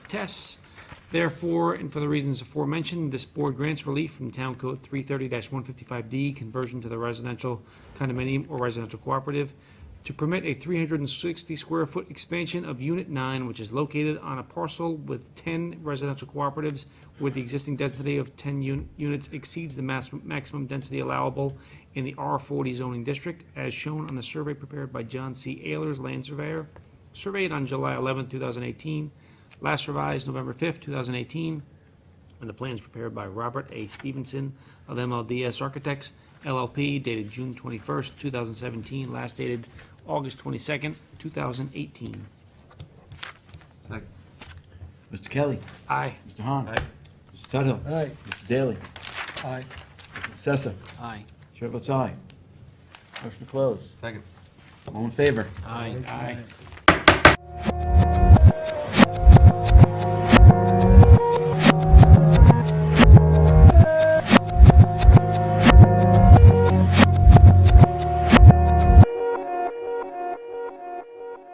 tests. Therefore, and for the reasons aforementioned, this board grants relief from Town Code 330-155D, conversion to the residential condominium or residential cooperative, to permit a 360-square-foot expansion of Unit 9, which is located on a parcel with 10 residential cooperatives, where the existing density of 10 un- units exceeds the mas- maximum density allowable in the R40 zoning district, as shown on the survey prepared by John C. Ayers, land surveyor, surveyed on July 11, 2018, last revised November 5, 2018, and the plans prepared by Robert A. Stevenson of MLDS Architects LLP dated June 21st, 2017, last dated August 22nd, 2018. Second. Mr. Kelly. Aye. Mr. Hahn. Aye. Mr. Tuttle. Aye. Mr. Daly. Aye. Mr. Sessa. Aye. Chair votes aye. Motion to close. Second. All in favor? Aye. Aye.